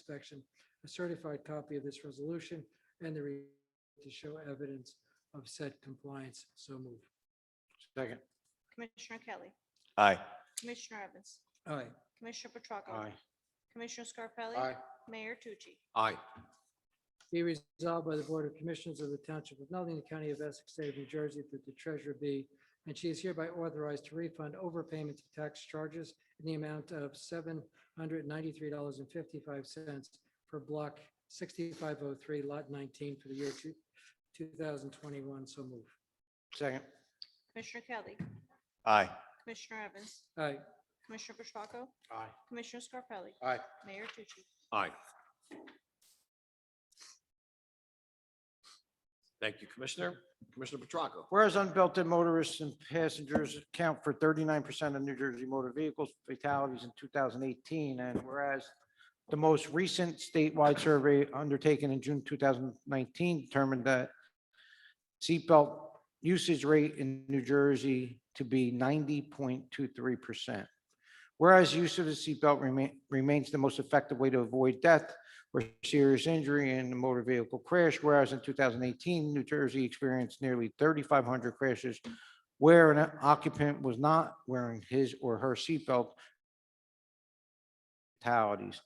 inspection, a certified copy of this resolution and the re- to show evidence of said compliance. So move. Second. Commissioner Kelly. Aye. Commissioner Evans. Aye. Commissioner Petracco. Commissioner Scarpelli. Mayor Tucci. Aye. Be resolved by the Board of Commissioners of the Township of Nutley, the County of Essex, State of New Jersey, that the treasurer be, and she is hereby authorized to refund overpayment of tax charges in the amount of seven hundred ninety-three dollars and fifty-five cents for block sixty-five oh three, lot nineteen for the year two, two thousand twenty-one. So move. Second. Commissioner Kelly. Aye. Commissioner Evans. Aye. Commissioner Petracco. Aye. Commissioner Scarpelli. Aye. Mayor Tucci. Aye. Thank you, Commissioner. Commissioner Petracca. Whereas unbelted motorists and passengers account for thirty-nine percent of New Jersey motor vehicles fatalities in two thousand eighteen, and whereas the most recent statewide survey undertaken in June two thousand nineteen determined that seatbelt usage rate in New Jersey to be ninety point two three percent. Whereas use of the seatbelt remain, remains the most effective way to avoid death or serious injury in a motor vehicle crash, whereas in 2018, New Jersey experienced nearly 3,500 crashes where an occupant was not wearing his or her seatbelt fatalities.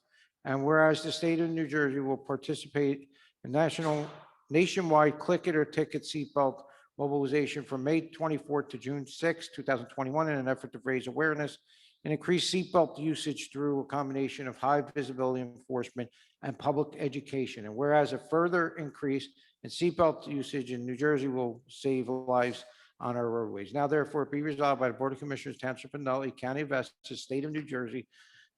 And whereas the state of New Jersey will participate in national, nationwide click it or ticket seatbelt mobilization from May 24th to June 6th, 2021, in an effort to raise awareness and increase seatbelt usage through a combination of high visibility enforcement and public education. And whereas a further increase in seatbelt usage in New Jersey will save lives on our roadways. Now therefore be resolved by the Board of Commissioners Township of Nutley County of Essex, State of New Jersey,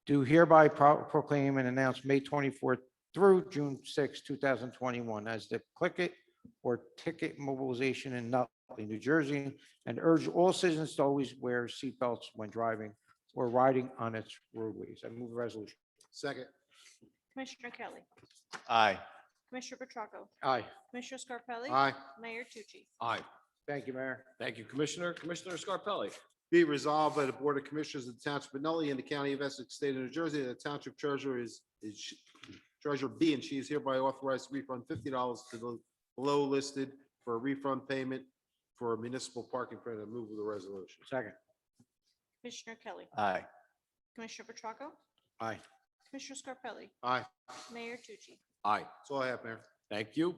do hereby pro- proclaim and announce May 24th through June 6, 2021 as the Click It or Ticket Mobilization in Nutley, New Jersey, and urge all citizens to always wear seatbelts when driving or riding on its roadways. I move the resolution. Second. Commissioner Kelly. Aye. Commissioner Petracco. Aye. Commissioner Scarpelli. Aye. Mayor Tucci. Aye. Thank you, Mayor. Thank you, Commissioner. Commissioner Scarpelli. Be nutley by the Board of Commissioners of the Township of Nutley and the County of Essex, State of New Jersey, that the Township Treasurer is, is she- Treasurer B, and she is hereby authorized to refund fifty dollars to the below listed for a refund payment for a municipal parking credit. I Move with the resolution. Second. Commissioner Kelly. Aye. Commissioner Petracco. Aye. Commissioner Scarpelli. Aye. Mayor Tucci. Aye. That's all I have, Mayor. Thank you.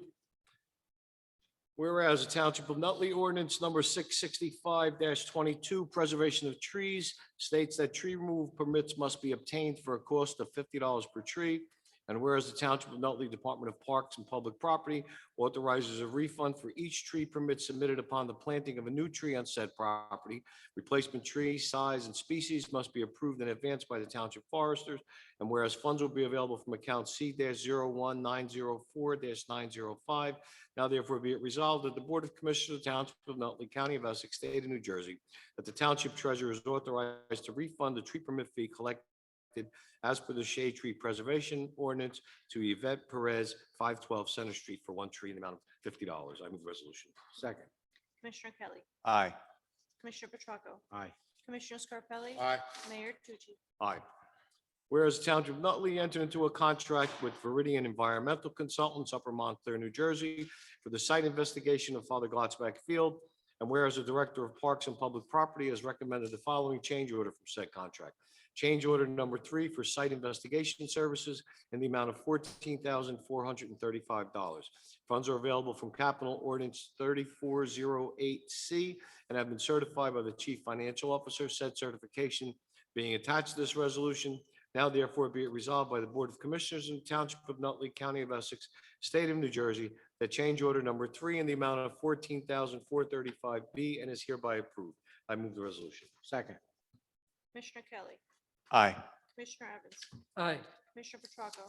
Whereas the Township of Nutley ordinance number six sixty-five twenty-two, preservation of trees, states that tree removal permits must be obtained for a cost of fifty dollars per tree. And whereas the Township of Nutley Department of Parks and Public Property authorizes a refund for each tree permit submitted upon the planting of a new tree on said property. Replacement tree, size, and species must be approved in advance by the Township Foresters and whereas funds will be available from account C dash zero one nine zero four dash nine zero five. Now therefore be it resolved that the Board of Commissioners of the Township of Nutley County of Essex, State of New Jersey, that the Township Treasurer is authorized to refund the tree permit fee collected as per the shade tree preservation ordinance to Yvette Perez, five twelve Center Street for one tree in the amount of fifty dollars. I move the resolution. Second. Commissioner Kelly. Aye. Commissioner Petracco. Aye. Commissioner Scarpelli. Aye. Mayor Tucci. Aye. Whereas the Township of Nutley entered into a contract with Veridian Environmental Consultants, Upper Montclair, New Jersey, for the site investigation of Father Glotzback Field. And whereas the Director of Parks and Public Property has recommended the following change order from said contract. Change order number three for site investigation services in the amount of fourteen thousand four hundred and thirty-five dollars. Funds are available from Capital Ordinance thirty-four zero eight C and have been certified by the Chief Financial Officer. Said certification being attached to this resolution. Now therefore be it resolved by the Board of Commissioners in the Township of Nutley County of Essex, State of New Jersey, that change order number three in the amount of fourteen thousand four thirty-five B and is hereby approved. I move the resolution. Second. Commissioner Kelly. Aye. Commissioner Evans. Aye. Commissioner Petracco.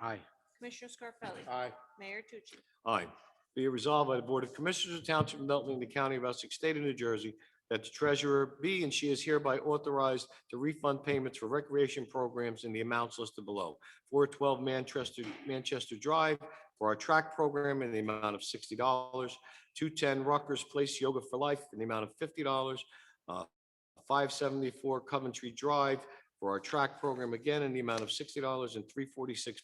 Aye. Commissioner Scarpelli. Aye. Mayor Tucci. Aye. Be it resolved by the Board of Commissioners of Township of Nutley and the County of Essex, State of New Jersey, that the treasurer be and she is hereby authorized to refund payments for recreation programs in the amounts listed below. Four twelve Manchester, Manchester Drive for our track program in the amount of sixty dollars. Two ten Rutgers Place Yoga for Life in the amount of fifty dollars. Uh, Five seventy-four Coventry Drive for our track program again in the amount of sixty dollars and three forty-six